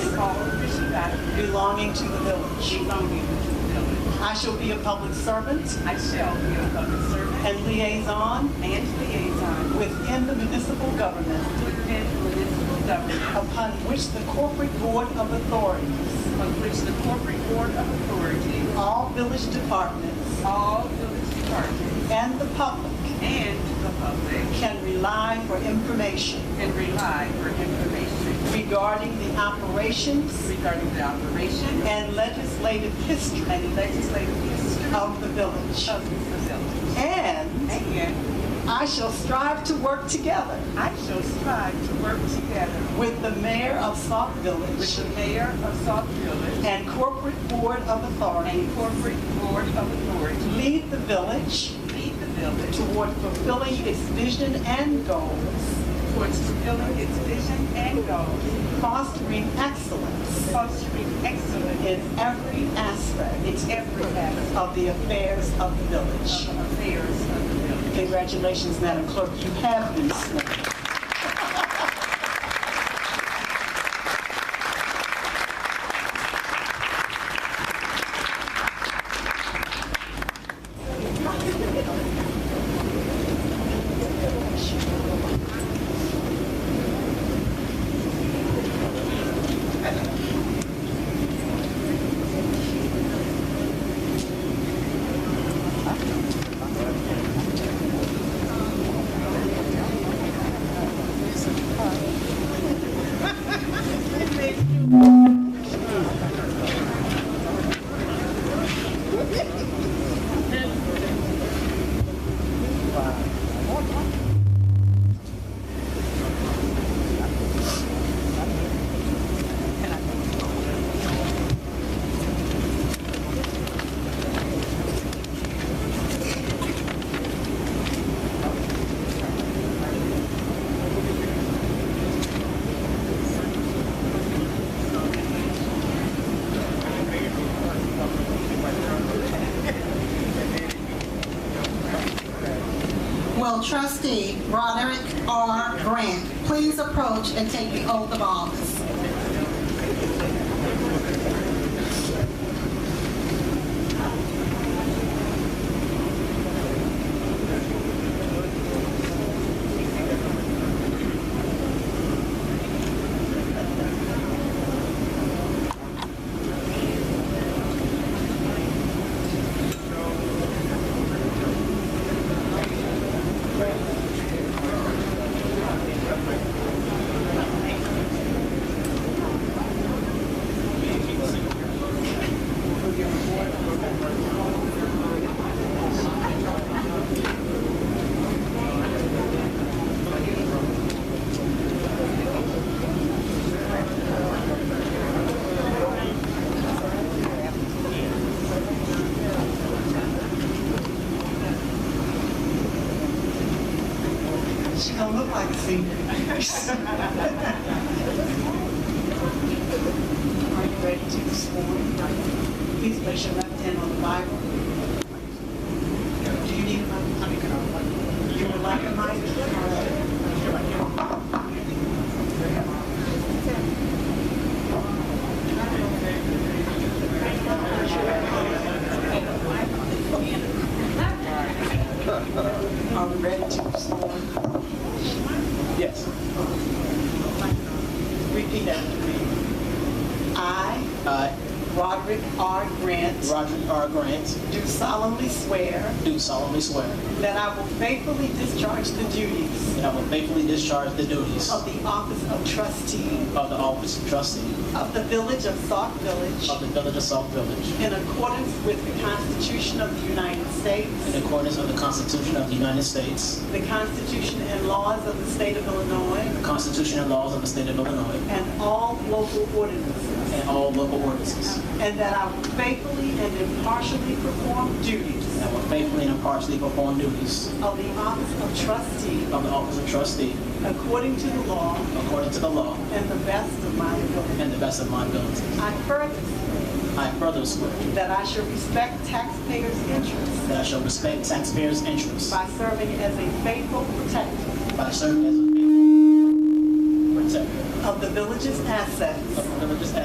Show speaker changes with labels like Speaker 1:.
Speaker 1: belonging to the village.
Speaker 2: belonging to the village.
Speaker 1: I shall be a public servant
Speaker 2: I shall be a public servant
Speaker 1: and liaison
Speaker 2: and liaison
Speaker 1: within the municipal government
Speaker 2: within municipal government
Speaker 1: upon which the corporate board of authorities,
Speaker 2: of which the corporate board of authority,
Speaker 1: all village departments,
Speaker 2: all village departments,
Speaker 1: and the public
Speaker 2: and the public
Speaker 1: can rely for information
Speaker 2: can rely for information
Speaker 1: regarding the operations
Speaker 2: regarding the operation
Speaker 1: and legislative history
Speaker 2: and legislative history of
Speaker 1: of the village.
Speaker 2: the village.
Speaker 1: And
Speaker 2: And
Speaker 1: I shall strive to work together
Speaker 2: I shall strive to work together
Speaker 1: with the mayor of Sauk
Speaker 2: with the
Speaker 1: Village
Speaker 2: mayor of South Village
Speaker 1: and corporate board of authority,
Speaker 2: and corporate board of authority,
Speaker 1: lead the village
Speaker 2: lead the village
Speaker 1: toward fulfilling its vision and goals,
Speaker 2: towards fulfilling its vision and goals,
Speaker 1: fostering excellence
Speaker 2: fostering excellence
Speaker 1: in
Speaker 2: in
Speaker 1: every aspect
Speaker 2: every aspect
Speaker 1: of the affairs of the village.
Speaker 2: of affairs of the village.
Speaker 1: Congratulations, Madam Clerk, you have been sworn.
Speaker 3: Will trustee Roderick R. Grant please approach and take the oath of office?
Speaker 1: She don't look like a senior. Are you ready to be sworn? Please place your left hand on the Bible. Do you need a mic? You would uh, like a mic? Are we ready to be sworn?
Speaker 4: Yes,
Speaker 1: Repeat after me. I,
Speaker 4: I,
Speaker 1: Roderick R. Grant,
Speaker 4: Uh, Roger R. Grant,
Speaker 1: do solemnly swear
Speaker 4: do solemnly swear
Speaker 1: that I will faithfully discharge the duties
Speaker 4: that I will faithfully discharge the duties
Speaker 1: of
Speaker 4: of
Speaker 1: the office of trustee
Speaker 4: the office of trustee
Speaker 1: of the Village of Sauk
Speaker 4: of
Speaker 1: Village
Speaker 4: the Village of South Village
Speaker 1: in accordance with the Constitution of the United
Speaker 4: in
Speaker 1: States,
Speaker 4: accordance with the Constitution of the United States,
Speaker 1: the Constitution and laws of the state of Illinois,
Speaker 4: the Constitution and laws of the state of Illinois,
Speaker 1: and all local ordinances,
Speaker 4: and all local ordinances.
Speaker 1: and that I will faithfully and impartially perform duties
Speaker 4: And I will faithfully and impartially perform duties
Speaker 1: of the office of trustee
Speaker 4: of the office of trustee
Speaker 1: according to the law
Speaker 4: according to the law
Speaker 1: and the best of my ability.
Speaker 4: and the best of my ability.
Speaker 1: I further swear
Speaker 4: I further swear
Speaker 1: that I shall respect taxpayers' interests
Speaker 4: that I shall respect taxpayers' interests
Speaker 1: by serving as a faithful protector
Speaker 4: by serving as a faithful protector
Speaker 1: of the village's assets
Speaker 4: of the village's